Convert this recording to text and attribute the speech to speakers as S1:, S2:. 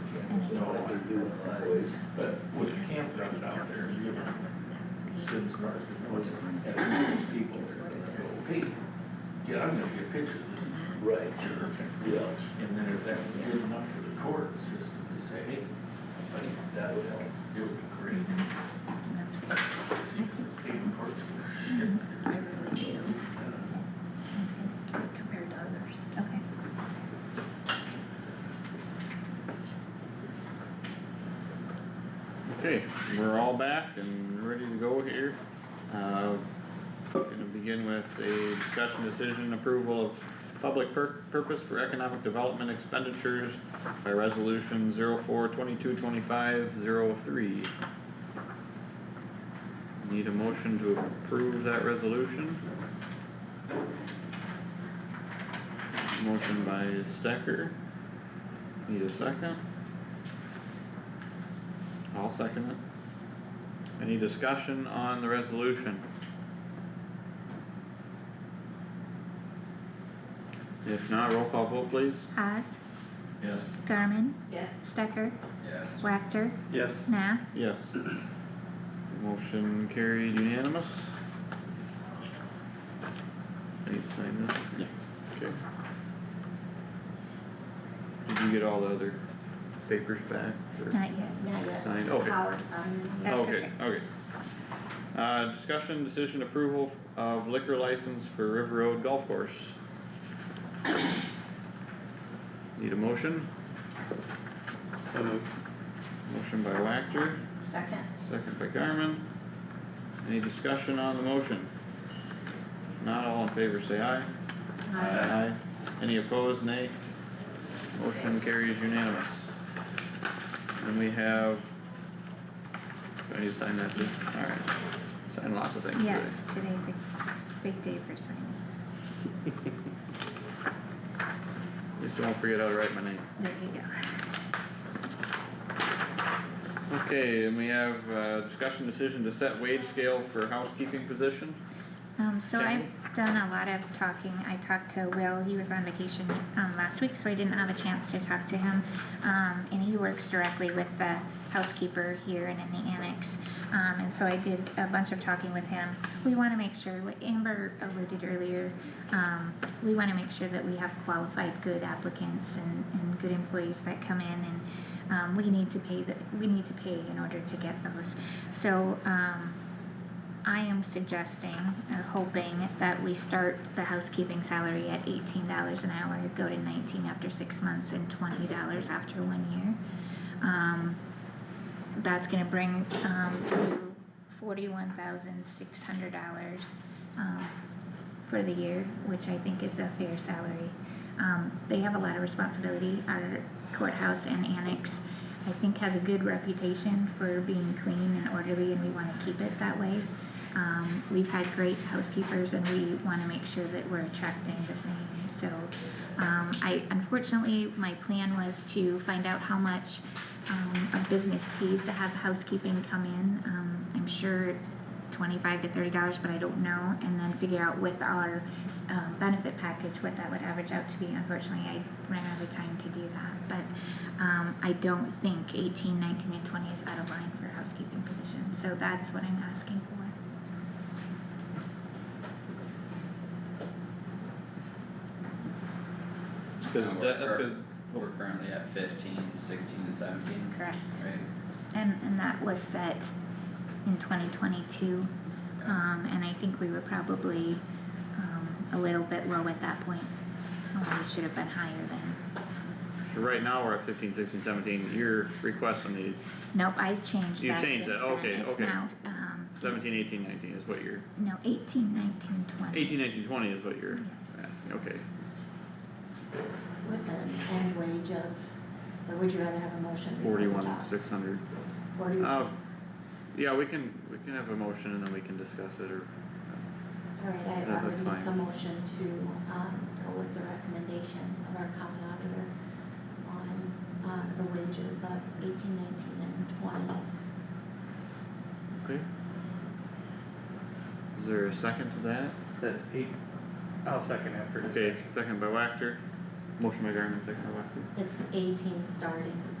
S1: No, I do, always.
S2: But with the campground out there, you have citizens, artists, and those, at least these people that are gonna go, hey, get out there, get pictures,
S1: Right,
S2: this jerk.
S1: yeah,
S2: And then if that was good enough for the court system to say, hey, buddy,
S1: that would help.
S2: it would be great. See, the paying courts for shit.
S3: I really do. Compared to others.
S4: Okay.
S5: Okay, we're all back and ready to go here. Uh, Gonna begin with a discussion decision approval of public pur- purpose for economic development expenditures by resolution zero four twenty-two twenty-five zero three. Need a motion to approve that resolution? Motion by Stecker. Need a second? I'll second it. Any discussion on the resolution? If not, roll call vote please.
S4: Haas,
S2: Yes.
S4: Garmin,
S3: Yes.
S4: Stecker,
S2: Yes.
S4: Wactor,
S1: Yes.
S4: Nah,
S5: Yes. Motion carried unanimous. Any sign this?
S4: yes.
S5: Okay. Did you get all the other papers back or
S4: Not yet.
S3: Not yet.
S5: signed? Okay.
S3: Howard's on.
S4: That's
S5: Okay, okay. Uh, discussion, decision, approval of liquor license for River Road Golf Course. Need a motion? Motion by Wactor,
S3: Second.
S5: second by Garmin. Any discussion on the motion? Not all in favor, say aye. Uh,
S3: Aye.
S5: Any opposed, nay? Motion carries unanimous. And we have, do I need to sign that, alright, sign lots of things today.
S4: Yes, today's a big day for signing.
S5: Just don't forget how to write my name.
S4: There you go.
S5: Okay, and we have, uh, discussion decision to set wage scale for housekeeping position.
S4: Um, so I've
S5: Jackie?
S4: done a lot of talking. I talked to Will. He was on vacation, um, last week, so I didn't have a chance to talk to him. Um, and he works directly with the housekeeper here and in the annex. Um, and so I did a bunch of talking with him. We wanna make sure, like Amber alluded earlier, um, we wanna make sure that we have qualified good applicants and, and good employees that come in and, um, we need to pay the, we need to pay in order to get those. So, um, I am suggesting or hoping that we start the housekeeping salary at eighteen dollars an hour, go to nineteen after six months and twenty dollars after one year. Um, that's gonna bring, um, to forty-one thousand six hundred dollars, um, for the year, which I think is a fair salary. Um, they have a lot of responsibility, our courthouse and annex, I think has a good reputation for being clean and orderly and we wanna keep it that way. Um, we've had great housekeepers and we wanna make sure that we're attracting the same, so. Um, I, unfortunately, my plan was to find out how much, um, a business pays to have housekeeping come in. Um, I'm sure twenty-five to thirty dollars, but I don't know, and then figure out with our, um, benefit package what that would average out to be. Unfortunately, I ran out of time to do that, but, um, I don't think eighteen, nineteen, and twenty is out of line for a housekeeping position, so that's what I'm asking for.
S5: It's cause
S6: And
S5: that,
S6: we're
S5: that's
S6: cur-
S5: cause,
S6: We're currently at fifteen, sixteen and seventeen,
S4: Correct.
S6: right?
S4: And, and that was set in twenty twenty-two,
S6: Yeah.
S4: um, and I think we were probably, um, a little bit low at that point. Um, We should have been higher then.
S5: so right now we're at fifteen, sixteen, seventeen, you're requesting the
S4: Nope, I changed
S5: You
S4: that
S5: changed
S4: since
S5: it,
S4: then.
S5: okay,
S4: It's
S5: okay.
S4: now, um,
S5: seventeen, eighteen, nineteen is what you're,
S4: no, eighteen, nineteen, twenty.
S5: eighteen, nineteen, twenty is what you're
S4: Yes.
S5: asking, okay.
S3: With an end wage of, or would you rather have a motion? before we
S5: Forty-one,
S3: talk?
S5: six hundred. Uh,
S3: Forty-one.
S5: yeah, we can, we can have a motion and then we can discuss it or,
S3: Alright, I,
S5: that-
S3: I would
S5: that's
S3: make a
S5: fine.
S3: motion to, um, go with the recommendation of our common auditor on, uh, the wages of eighteen, nineteen, and twenty.
S5: okay? Is there a second to that?
S7: That's eight, I'll second after
S5: Okay,
S7: discussion.
S5: second by Wactor, motion by Garmin, second by Wactor.
S3: It's eighteen starting,